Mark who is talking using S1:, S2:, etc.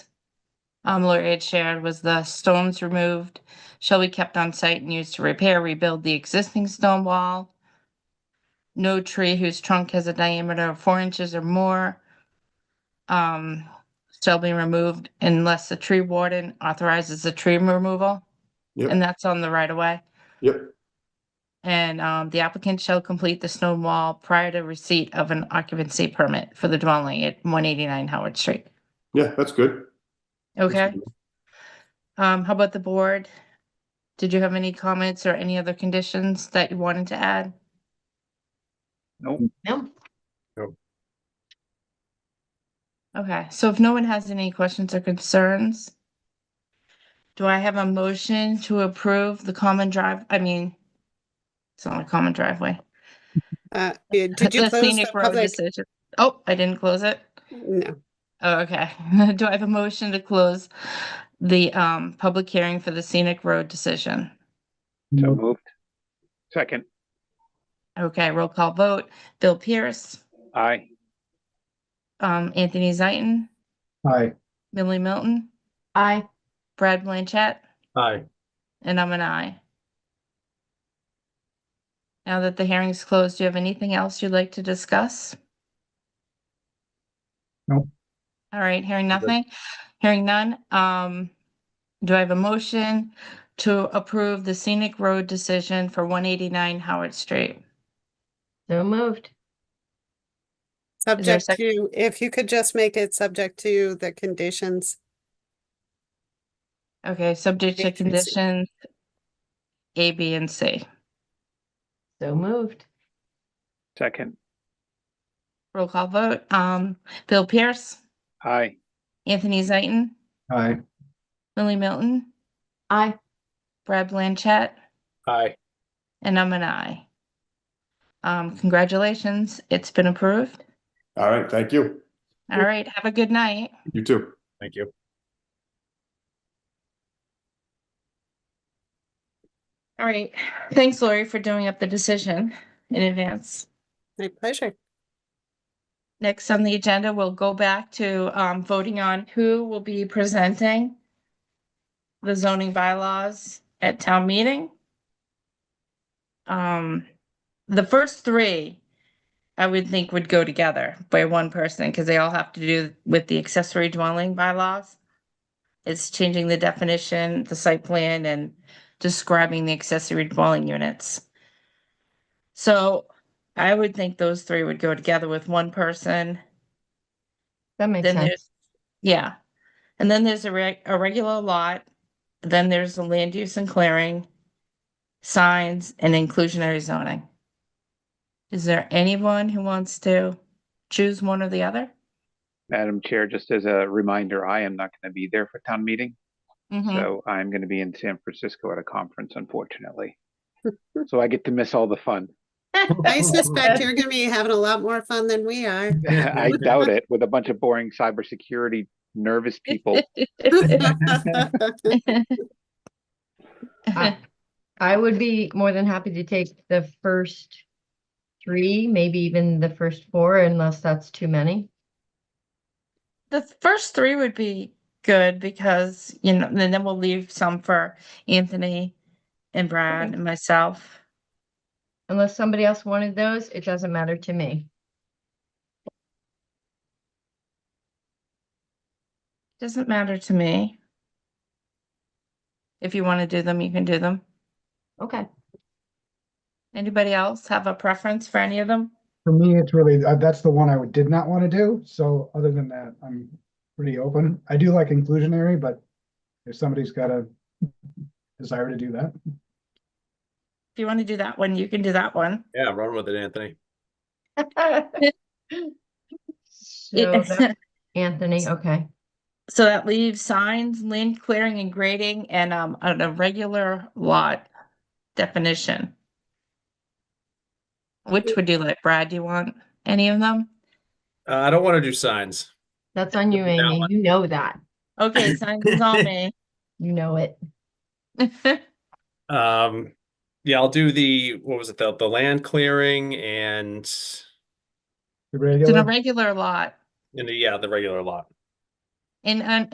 S1: um, Lori had shared was the stones removed shall be kept on site and used to repair, rebuild the existing stone wall. No tree whose trunk has a diameter of four inches or more um, shall be removed unless the tree warden authorizes the tree removal.
S2: Yep.
S1: And that's on the right of way.
S2: Yep,
S1: And um, the applicant shall complete the stone wall prior to receipt of an occupancy permit for the dwelling at one eighty-nine Howard Street.
S2: yeah, that's good. That's
S1: Okay,
S2: good.
S1: um, how about the board? Did you have any comments or any other conditions that you wanted to add?
S3: No,
S1: Okay, so if no one has any questions or concerns, do I have a motion to approve the common drive, I mean, it's not a common driveway.
S4: Uh, yeah, did you
S1: The
S4: close the
S1: scenic road
S4: public?
S1: decision. Oh, I didn't close it.
S4: No,
S1: Oh, okay. Do I have a motion to close the um public hearing for the scenic road decision?
S5: So moved. Second,
S1: Okay, roll call vote. Bill Pierce,
S5: aye.
S1: um Anthony Zaitin,
S6: Aye.
S1: Millie Milton,
S3: I,
S1: Brad Blanchett,
S6: Aye.
S1: and I'm an aye. Now that the hearing's closed, do you have anything else you'd like to discuss?
S6: No.
S1: All right, hearing
S2: I'm good.
S1: nothing, hearing none, um, do I have a motion to approve the scenic road decision for one eighty-nine Howard Street?
S3: so moved.
S4: subject
S1: sec-
S4: to, if you could just make it subject to the conditions.
S1: Okay, subject
S4: A,
S1: to
S4: B, C.
S1: conditions A, B, and C.
S3: So moved.
S5: Second,
S1: Roll call vote, um, Bill Pierce,
S5: aye.
S1: Anthony Zaitin,
S6: Aye.
S1: Millie Milton,
S3: I,
S1: Brad Blanchett,
S6: Aye.
S1: and I'm an aye. Um, congratulations, it's been approved.
S2: All right, thank you.
S1: All right, have a good night.
S2: You too.
S6: Thank you.
S1: All right, thanks Lori for doing up the decision in advance.
S4: My pleasure.
S1: Next on the agenda, we'll go back to um voting on who will be presenting the zoning bylaws at town meeting. Um, the first three, I would think would go together by one person, because they all have to do with the accessory dwelling bylaws. It's changing the definition, the site plan, and describing the accessory dwelling units. So I would think those three would go together with one person.
S3: that makes
S1: Then
S3: sense.
S1: there's, yeah. And then there's a reg, a regular lot, then there's the land use and clearing, signs and inclusionary zoning. Is there anyone who wants to choose one or the other?
S5: Madam Chair, just as a reminder, I am not going to be there for town meeting.
S3: Mm-hmm.
S1: Mm-hmm.
S5: So I'm going to be in San Francisco at a conference, unfortunately. So I get to miss all the fun.
S4: I suspect you're gonna be having a lot more fun than we are.
S5: I doubt it with a bunch of boring cybersecurity nervous people.
S3: I I would be more than happy to take the first three, maybe even the first four, unless that's too many.
S1: The first three would be good because, you know, then then we'll leave some for Anthony and Brad and myself.
S3: Unless somebody else wanted those, it doesn't matter to me.
S1: Doesn't matter to me. If you want to do them, you can do them.
S3: Okay.
S1: Anybody else have a preference for any of them?
S7: For me, it's really, uh, that's the one I would- did not want to do, so other than that, I'm pretty open. I do like inclusionary, but if somebody's got a desire to do that.
S1: If you want to do that one, you can do that one.
S8: Yeah, run with it, Anthony.
S3: So that's Anthony, okay.
S1: So that leaves signs, land clearing and grading and um an irregular lot definition. Which would you like, Brad? Do you want any of them?
S8: Uh, I don't want to do signs.
S3: That's on you,
S8: That
S3: Amy.
S8: one.
S3: You know that.
S1: Okay, signs is on me.
S3: You know it.
S8: Um, yeah, I'll do the what was it the the land clearing and
S7: The
S1: It's an
S7: regular-
S1: irregular lot.
S8: and the, yeah the regular lot.
S1: And um